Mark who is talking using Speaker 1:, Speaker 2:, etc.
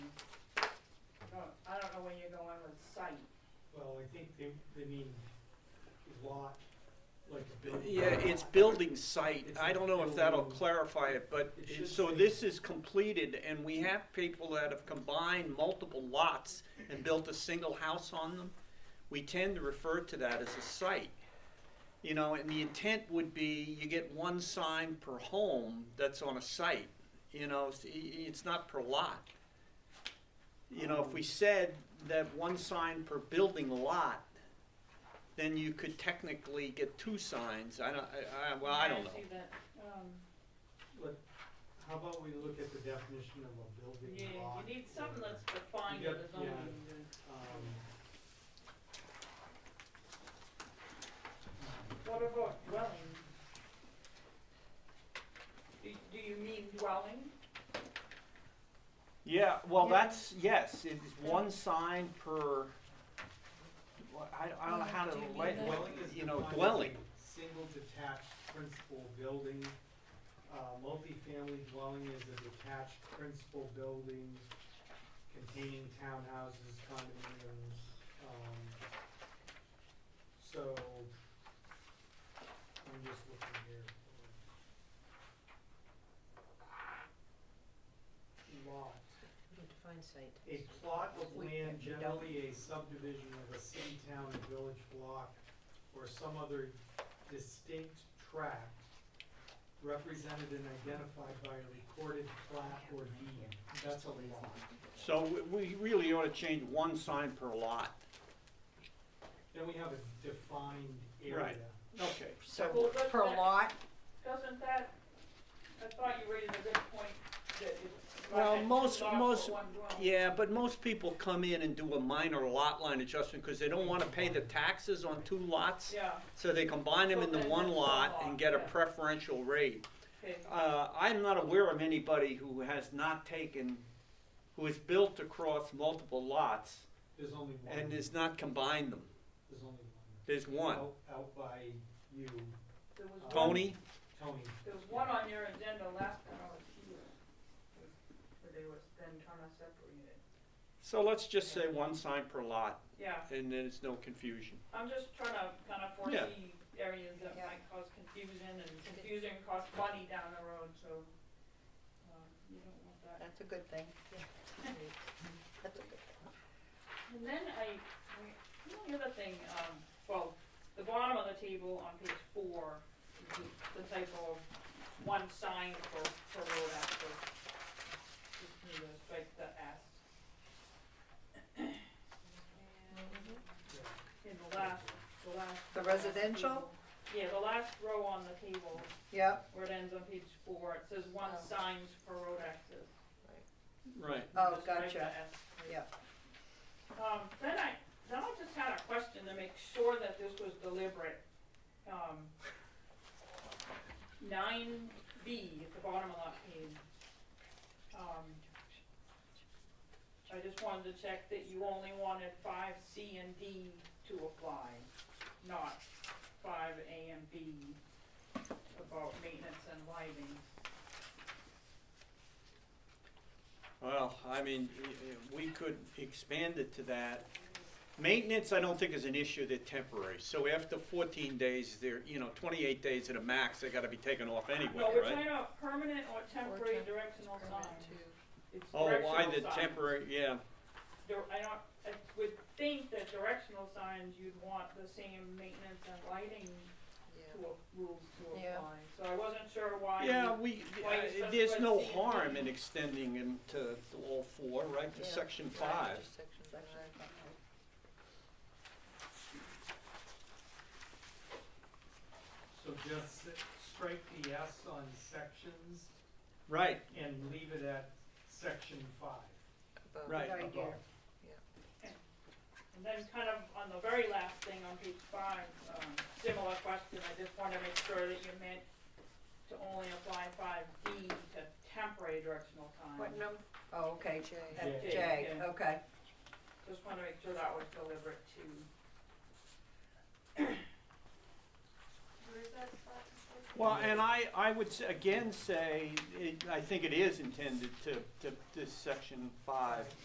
Speaker 1: Well, I think they, they mean lot, like a building.
Speaker 2: Yeah, it's building site. I don't know if that'll
Speaker 1: It's-
Speaker 2: clarify it, but,
Speaker 1: It should
Speaker 2: so
Speaker 1: say-
Speaker 2: this is completed, and we have people that have combined multiple lots and built a single house on them. We tend to refer to that as a site. You know, and the intent would be you get one sign per home that's on a site, you know, it's, it's not per lot. You know, if we said that one sign per building lot, then you could technically get two signs, I don't, I, I, well, I don't know.
Speaker 3: see that, um,
Speaker 1: But how about we look at the definition of a
Speaker 3: yeah,
Speaker 1: building lot?
Speaker 3: you need something that's defined
Speaker 1: Yep,
Speaker 3: as zoning.
Speaker 1: yeah. Um,
Speaker 3: What about dwelling? Do, do you mean dwelling?
Speaker 2: Yeah, well,
Speaker 3: Yeah.
Speaker 2: that's, yes, it's one sign per, well, I, I don't know how to,
Speaker 4: Do you mean
Speaker 2: lay-
Speaker 4: that?
Speaker 2: well,
Speaker 1: Dwelling is
Speaker 2: you know,
Speaker 1: defined as a
Speaker 2: dwelling,
Speaker 1: Single detached principal building. Uh, multifamily dwelling is a detached principal building containing townhouses, condominiums, um, so, I'm just looking here. for Lot,
Speaker 4: We define site.
Speaker 1: a plot of
Speaker 4: We-
Speaker 1: land
Speaker 4: we don't-
Speaker 1: generally a subdivision of a city, town, and village block, or some other distinct tract represented and identified by a recorded plat or deed, that's a lot.
Speaker 2: so we- we really ought to change one sign per lot.
Speaker 1: Then we have a defined area.
Speaker 2: Right. Okay.
Speaker 4: So,
Speaker 3: Well, that's
Speaker 4: per
Speaker 3: that-
Speaker 4: lot,
Speaker 3: Doesn't that, I thought you raised a good point that it's.
Speaker 2: Well,
Speaker 3: it's
Speaker 2: most-
Speaker 3: not for
Speaker 2: most-
Speaker 3: one dwelling.
Speaker 2: Yeah, but most people come in and do a minor lot line adjustment, cause they don't wanna pay the taxes on two lots,
Speaker 3: Yeah,
Speaker 2: so they combine them
Speaker 3: So
Speaker 2: into
Speaker 3: then
Speaker 2: one
Speaker 3: it's one
Speaker 2: lot and
Speaker 3: lot,
Speaker 2: get a
Speaker 3: yeah.
Speaker 2: preferential rate.
Speaker 3: okay,
Speaker 2: Uh, I'm not aware of anybody who has not taken, who has built across multiple lots
Speaker 1: There's only one.
Speaker 2: and has not combined them.
Speaker 1: There's only one.
Speaker 2: There's one.
Speaker 1: Out, out by you, Um,
Speaker 3: there was one.
Speaker 2: Tony?
Speaker 1: Tony.
Speaker 3: There was one on your agenda last time I was here. Where they was then trying to separate it.
Speaker 2: So let's just say one sign per lot,
Speaker 3: Yeah,
Speaker 2: and then it's no confusion.
Speaker 3: I'm just trying to kind of
Speaker 2: Yeah.
Speaker 3: foresee areas that
Speaker 4: Yeah.
Speaker 3: might cause confusion and confusion costs money down the road, so, um, you don't want that.
Speaker 4: that's a good thing. That's a good
Speaker 3: And then I, I- you know, the other thing, um, well, the bottom of the table on page four, is the- the typo of one sign for, for road access. Just need to strike the S.
Speaker 4: Mm-hmm.
Speaker 3: And In the last, the last.
Speaker 4: The residential?
Speaker 3: Yeah, the last row on the table,
Speaker 4: Yep,
Speaker 3: where it ends on page four, it says one
Speaker 4: Oh.
Speaker 3: signs for road access.
Speaker 2: Right.
Speaker 4: oh,
Speaker 3: Just strike
Speaker 4: gotcha,
Speaker 3: the S.
Speaker 4: yeah.
Speaker 3: Um, then I, then I just had a question to make sure that this was deliberate. Um, nine B at the bottom of that page. Um, I just wanted to check that you only wanted five C and D to apply, not five A and B about maintenance and lighting.
Speaker 2: Well, I mean, y- y- we could expand it to that. Maintenance, I don't think is an issue, they're temporary. So after fourteen days, they're, you know, twenty-eight days at a max, they gotta be taken off anyway,
Speaker 3: No, we're
Speaker 2: right?
Speaker 3: talking about permanent or temporary
Speaker 4: temp-
Speaker 3: directional sign. It's
Speaker 2: Oh, why
Speaker 3: directional
Speaker 2: the
Speaker 3: sign.
Speaker 2: temporary, yeah,
Speaker 3: dir- I don't, I would think that directional signs, you'd want the same maintenance and lighting to, a- rules to
Speaker 4: Yeah.
Speaker 3: apply. So I wasn't sure why.
Speaker 2: yeah, we,
Speaker 3: why
Speaker 2: uh,
Speaker 3: you specify
Speaker 2: there's no
Speaker 3: C and D?
Speaker 2: harm in extending them to all four, right, to
Speaker 4: Yeah.
Speaker 2: section five.
Speaker 1: So just s- strike the S on sections
Speaker 2: Right,
Speaker 1: and leave it at section five.
Speaker 2: Right.
Speaker 4: Right
Speaker 1: above.
Speaker 4: here.
Speaker 3: And then kind of on the very last thing on page five, um, similar question, I just wanna make sure that you meant to only apply five D to temporary directional signs.
Speaker 4: What number? Oh, okay, J,
Speaker 1: J.
Speaker 4: J,
Speaker 3: Yeah.
Speaker 4: okay.
Speaker 3: Just wanna make sure that was deliberate too. Where is that spot?
Speaker 2: Well, and I, I would s- again say, it- I think it is intended to, to, to section five.